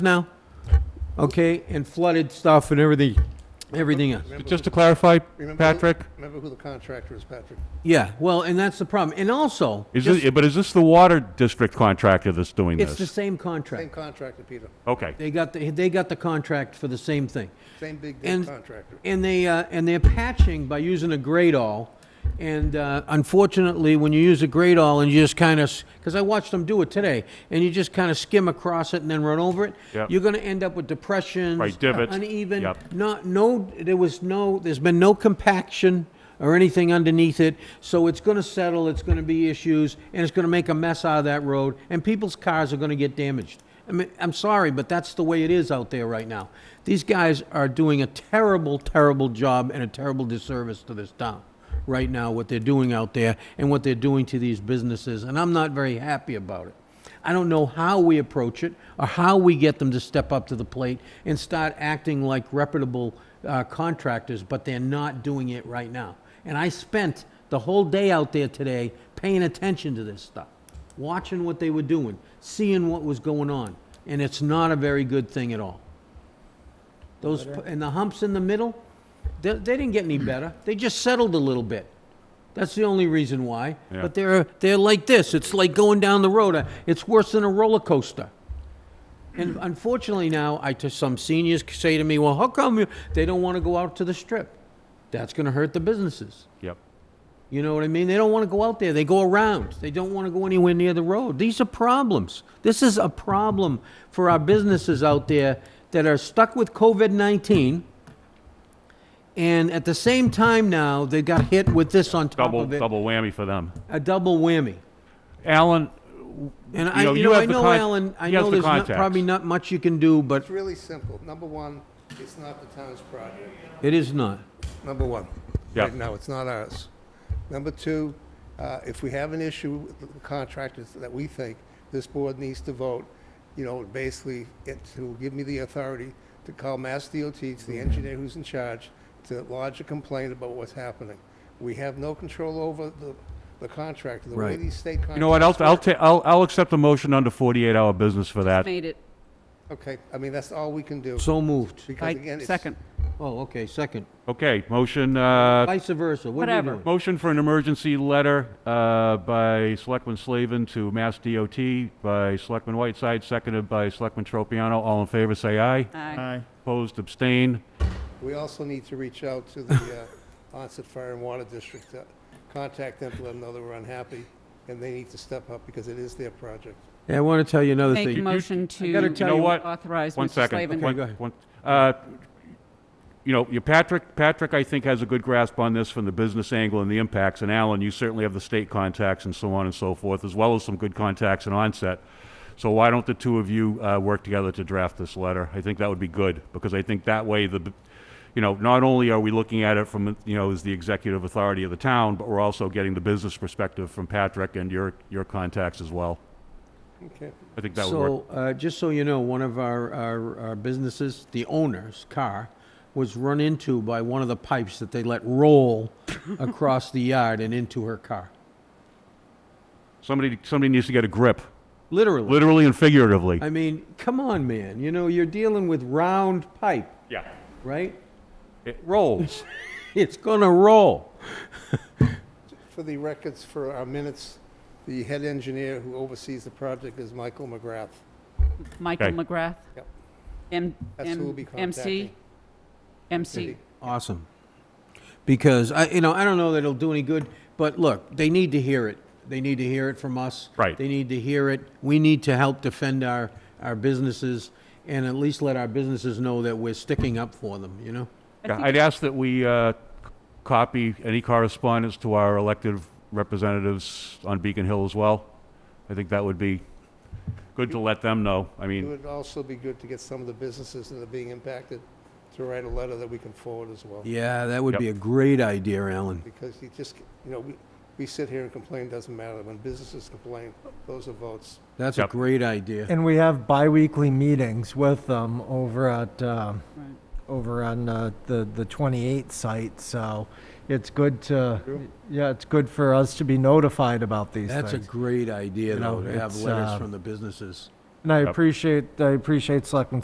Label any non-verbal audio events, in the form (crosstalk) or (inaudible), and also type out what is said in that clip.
now, okay, and flooded stuff and everything, everything else. Just to clarify, Remember who- Patrick, Remember who the contractor is, Patrick? Yeah, well, and that's the problem. And also, is this, but is this the water district contractor that's doing it's the this? same Same contract. contractor, Peter. Okay, They got the, they got the contract for the same thing. Same big, And- big contractor. And they, uh, and they're patching by using a grade all. And uh, unfortunately, when you use a grade all and you just kind of, because I watched them do it today, and you just kind of skim across it and then run over it, Yep. you're going to end up with depressions, Right, divots. uh, uneven, Yep. not, no, there was no, there's been no compaction or anything underneath it, so it's gonna settle, it's gonna be issues, and it's gonna make a mess out of that road, and people's cars are gonna get damaged. I mean, I'm sorry, but that's the way it is out there right now. These guys are doing a terrible, terrible job and a terrible disservice to this town right now, what they're doing out there and what they're doing to these businesses, and I'm not very happy about it. I don't know how we approach it or how we get them to step up to the plate and start acting like reputable uh, contractors, but they're not doing it right now. And I spent the whole day out there today paying attention to this stuff, watching what they were doing, seeing what was going on, and it's not a very good thing at all. Those, and the humps in the middle, they, they didn't get any better. They just settled a little bit. That's the only reason why. Yeah. But they're, they're like this. It's like going down the road. Uh, It's worse than a roller coaster. And unfortunately now, I, to some seniors say to me, well, how come you, they don't want to go out to the strip? That's going to hurt the businesses. yep. You know what I mean? They don't want to go out there. They go around. They don't want to go anywhere near the road. These are problems. This is a problem for our businesses out there that are stuck with COVID 19. And at the same time now, they got hit with this on top Double, of it double whammy for them. a double whammy. Alan, And You I, know, you you know, have I the know, con- Alan, I you have know the there's not, contacts. probably not much you can do, but It's really simple. Number one, it's not the town's project. it is not. Number one. Yeah. Right now, it's not ours. Number two, uh, if we have an issue with the contractors that we think this board needs to vote, you know, basically, it to give me the authority to call Mass DOT, to the engineer who's in charge, to lodge a complaint about what's happening. We have no control over the, the contractor, the way Right. these state contractors. you know what, I'll, I'll ta, I'll, I'll accept a motion under forty-eight hour business for that. Made it. Okay, I mean, that's all we can do. So moved. Because again, I, it's. second. Oh, okay, second. Okay, motion, uh, Vice versa. What are we Whatever. doing? motion for an emergency letter, uh, by Selectman Slavin to Mass DOT, by Selectman Whiteside, seconded by Selectman Tropiano. All in favor, say aye. Aye. Opposed, abstain. We also need to reach out to the uh, Onset Fire and Water District, uh, contact them to let them know that we're unhappy, and they need to step up because it is their project. Hey, I want to tell you another Make thing. motion I gotta to tell you you what? authorize One Mr. second. Slavin. One- Okay, go ahead. one- uh, You know, your Patrick, Patrick, I think, has a good grasp on this from the business angle and the impacts, and Alan, you certainly have the state contacts and so on and so forth, as well as some good contacts in onset. So why don't the two of you uh, work together to draft this letter? I think that would be good, because I think that way, the, b- you know, not only are we looking at it from, you know, as the executive authority of the town, but we're also getting the business perspective from Patrick and your, your contacts as well. Okay. I think that would work. So, uh, just so you know, one of our, our, our businesses, the owner's car, was run into by one of the pipes that they let (laughs) roll across the yard and into her car. Somebody, somebody needs to get a grip, Literally. literally and figuratively. I mean, come on, man. You know, you're dealing with round pipe, Yeah. right? It rolls. (laughs) It's gonna roll. For the records, for our minutes, the head engineer who oversees the project is Michael McGrath. Michael Okay. McGrath. Yep. M, That's who we'll be M- MC. contacting. MC. Awesome. Because I, you know, I don't know that it'll do any good, but look, they need to hear it. They need to hear it from us. Right. They need to hear it. We need to help defend our, our businesses and at least let our businesses know that we're sticking up for them, you know? Yeah, I'd ask that we uh, c- copy any correspondence to our elected representatives on Beacon Hill as well. I think that would be good to let them know. I It mean, would also be good to get some of the businesses that are being impacted to write a letter that we can forward as well. Yeah, that would be a great idea, Alan. Because you just, you know, we, we sit here and complain, doesn't matter. When businesses complain, those are votes. That's a Yep. great idea. And we have bi-weekly meetings with them over at, uh, over on uh, the, the 28th site, so it's good to, yeah, it's good for us to be notified about these That's a things. great idea, You though, know, to have it's, letters uh, from the businesses. And I Yep. appreciate, I appreciate Selectman